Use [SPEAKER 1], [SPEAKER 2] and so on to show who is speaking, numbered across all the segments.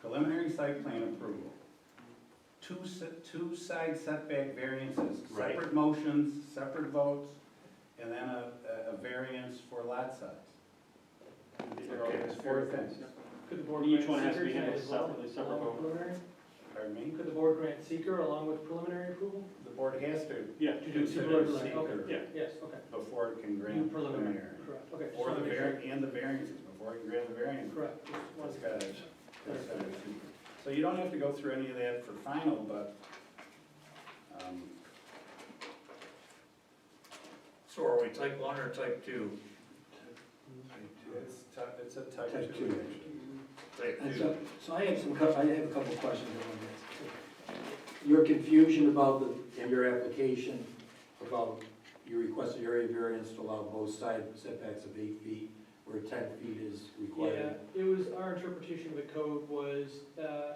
[SPEAKER 1] preliminary site plan approval, two, se- two side setback variances,
[SPEAKER 2] Right.
[SPEAKER 1] separate motions, separate votes, and then a, a- a variance for lot size. There are
[SPEAKER 2] Okay.
[SPEAKER 1] four things,
[SPEAKER 3] Could the board
[SPEAKER 2] Each
[SPEAKER 3] grant
[SPEAKER 2] one has to be
[SPEAKER 3] seeker
[SPEAKER 2] handled
[SPEAKER 3] as well-
[SPEAKER 2] separately, separate
[SPEAKER 3] along with
[SPEAKER 2] vote.
[SPEAKER 3] preliminary?
[SPEAKER 1] pardon me,
[SPEAKER 3] Could the board grant seeker along with preliminary approval?
[SPEAKER 1] the board has to
[SPEAKER 2] Yeah.
[SPEAKER 3] To do
[SPEAKER 1] consider
[SPEAKER 3] separate,
[SPEAKER 1] seeker
[SPEAKER 3] okay.
[SPEAKER 2] Yeah.
[SPEAKER 3] Yes, okay.
[SPEAKER 1] before it can
[SPEAKER 3] Do
[SPEAKER 1] grant
[SPEAKER 3] preliminary,
[SPEAKER 1] preliminary.
[SPEAKER 3] correct, okay. just
[SPEAKER 1] Or
[SPEAKER 3] wanna
[SPEAKER 1] the
[SPEAKER 3] make sure.
[SPEAKER 1] var, and the variances, before it can grant the variance.
[SPEAKER 3] Correct. just
[SPEAKER 1] It's
[SPEAKER 3] wanna-
[SPEAKER 1] got to- it's got to be seeker. So you don't have to go through any of that for final, but, um,
[SPEAKER 4] So are we type one or type two?
[SPEAKER 1] It's type, it's a type
[SPEAKER 5] Type
[SPEAKER 1] two
[SPEAKER 5] two.
[SPEAKER 1] action.
[SPEAKER 4] Type
[SPEAKER 5] And
[SPEAKER 4] two.
[SPEAKER 5] so, so I have some, cou- I have a couple of questions I want to ask. Your confusion about the, in your application, about you requested area variance to allow both side setbacks of eight feet, where ten feet is
[SPEAKER 3] Yeah,
[SPEAKER 5] required.
[SPEAKER 3] it was, our interpretation of the code was uh,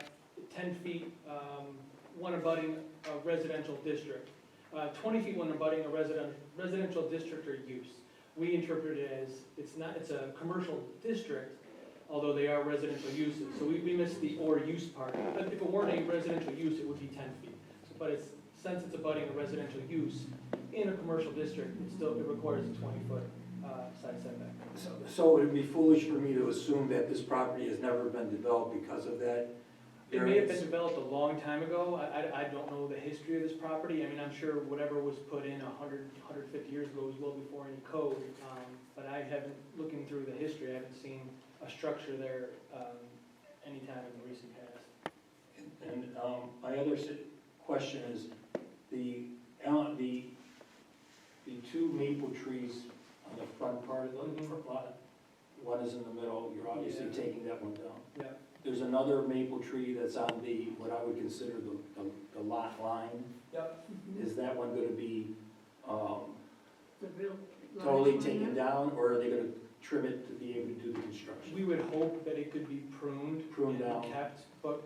[SPEAKER 3] 10 feet, um, one abutting a residential district, uh, 20 feet one abutting a resident, residential district or use. We interpret it as, it's not, it's a commercial district, although they are residential uses, so we we missed the or use part. But if it weren't a residential use, it would be 10 feet. So, But it's, since it's abutting a residential use in a commercial district, it still, it requires a 20-foot side setback.
[SPEAKER 5] So, so it'd be foolish for me to assume that this property has never been developed because of that.
[SPEAKER 3] It may have been
[SPEAKER 5] variance.
[SPEAKER 3] developed a long time ago, I, I, I don't know the history of this property, I mean, I'm sure whatever was put in a hundred, hundred fifty years ago was well before any code, um, but I haven't, looking through the history, I haven't seen a structure there, um, anytime in the recent past.
[SPEAKER 5] And um, my other s- question is, the, ele- the, the two maple trees on the front part of the
[SPEAKER 3] Mhm.
[SPEAKER 5] lot, one is in the middle, you're obviously
[SPEAKER 3] Yeah.
[SPEAKER 5] taking that one down.
[SPEAKER 3] Yeah,
[SPEAKER 5] There's another maple tree that's on the, what I would consider the- the, the lot line.
[SPEAKER 3] Yep.
[SPEAKER 5] Is that one gonna be um,
[SPEAKER 6] The real.
[SPEAKER 5] totally taken down, or are they gonna trim it to be able to do the construction?
[SPEAKER 3] we would hope that it could be pruned
[SPEAKER 5] Pruned
[SPEAKER 3] and
[SPEAKER 5] out.
[SPEAKER 3] kept, but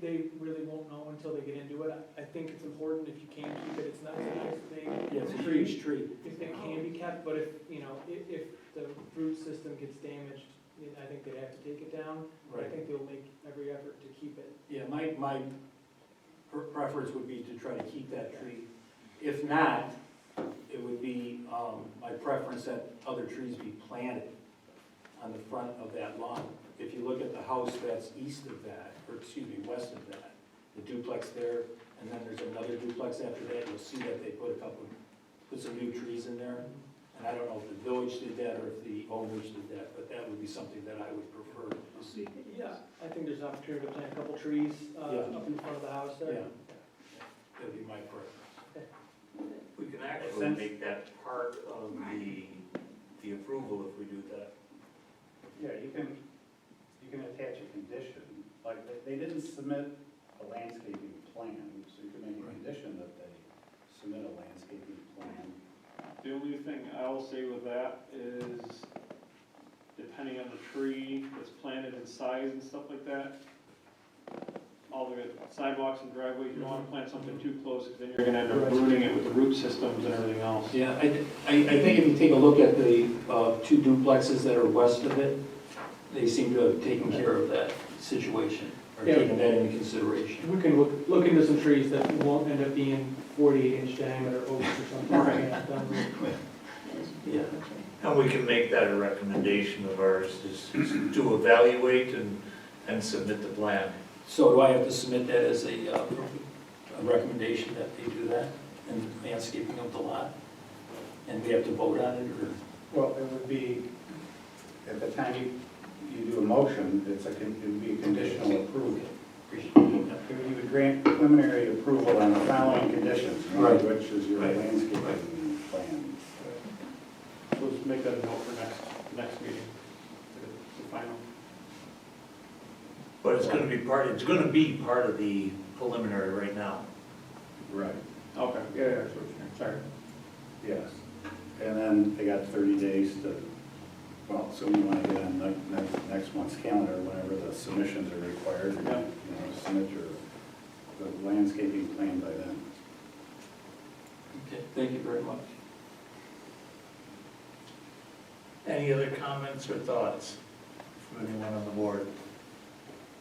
[SPEAKER 3] they really won't know until they get into it. I I think it's important if you can keep it, it's not such a big
[SPEAKER 5] Yeah, it's a
[SPEAKER 3] tree.
[SPEAKER 5] huge tree.
[SPEAKER 3] if it can be kept, but if, you know, if, if the root system gets damaged, then I think they'd have to take it down. But I think they'll make every effort to keep it.
[SPEAKER 5] Yeah, my, my pre- preference would be to try to keep that tree. If not, it would be, um, my preference that other trees be planted on the front of that lawn. If you look at the house that's east of that, or excuse me, west of that, the duplex there, and then there's another duplex after that, you'll see that they put a couple, put some new trees in there. And I don't know if the village did that or if the owners did that, but that would be something that I would prefer to see.
[SPEAKER 3] Yeah, I think there's an opportunity to plant a couple trees, uh,
[SPEAKER 5] Yeah.
[SPEAKER 3] up in front of the house
[SPEAKER 5] Yeah,
[SPEAKER 3] there.
[SPEAKER 5] that'd be my preference.
[SPEAKER 4] We can actually make that part of the, the approval if we do that.
[SPEAKER 1] Yeah, you can, you can attach a condition, like, they- they didn't submit a landscaping plan, so you can make a
[SPEAKER 5] Right.
[SPEAKER 1] condition that they submit a landscaping plan.
[SPEAKER 2] The only thing I will say with that is, depending on the tree that's planted and size and stuff like that, all the sidewalks and driveways, you don't wanna plant something too close, because then you're gonna end up ruining it with the root systems and everything else.
[SPEAKER 5] Yeah, I, I, I think if you take a look at the, uh, two duplexes that are west of it, they seem to have taken care of that situation, or
[SPEAKER 3] Yeah.
[SPEAKER 5] taken that into consideration.
[SPEAKER 3] We can look, look into some trees that won't end up being forty-eight inch diameter oaks or something.
[SPEAKER 5] Right.
[SPEAKER 3] Yeah, done with.
[SPEAKER 5] Yeah.
[SPEAKER 4] And we can make that a recommendation of ours, is is to evaluate and, and submit the plan.
[SPEAKER 5] So do I have to submit that as a, uh, a recommendation that they do that, and landscaping of the lot? And we have to vote on it, or?
[SPEAKER 1] Well, it would be, at the time you, you do a motion, it's a, con- it would be a conditional approval. You would grant preliminary approval on the following conditions, one of
[SPEAKER 5] Right.
[SPEAKER 1] which is your
[SPEAKER 5] Right.
[SPEAKER 1] landscaping plan.
[SPEAKER 2] Let's make that a note for next, next meeting, the final.
[SPEAKER 4] But it's gonna be part, it's gonna be part of the preliminary right now.
[SPEAKER 1] Right.
[SPEAKER 2] Okay, yeah, yeah, that's what you're- sorry.
[SPEAKER 1] Yes, and then they got thirty days to, well, so you wanna get on ne- next, next month's calendar, whenever the submissions are required, you
[SPEAKER 2] Yeah.
[SPEAKER 1] know, submit your, the landscaping plan by then.
[SPEAKER 5] Okay, thank you very much.
[SPEAKER 4] Any other comments or thoughts from anyone on the board?